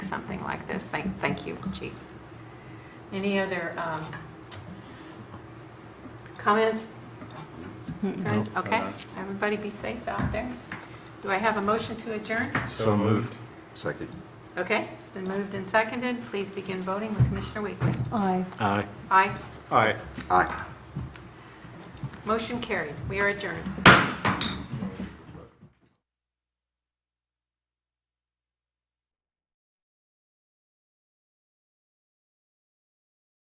like this. Thank, thank you, Chief. Any other um, comments? Concerns? Okay, uh, everybody be safe out there. Do I have a motion to adjourn? So moved. Second. Okay, it's been moved and seconded. Please begin voting with Commissioner Weekly. Aye. Aye. Aye. Aye. Aye. Motion carried. We are adjourned.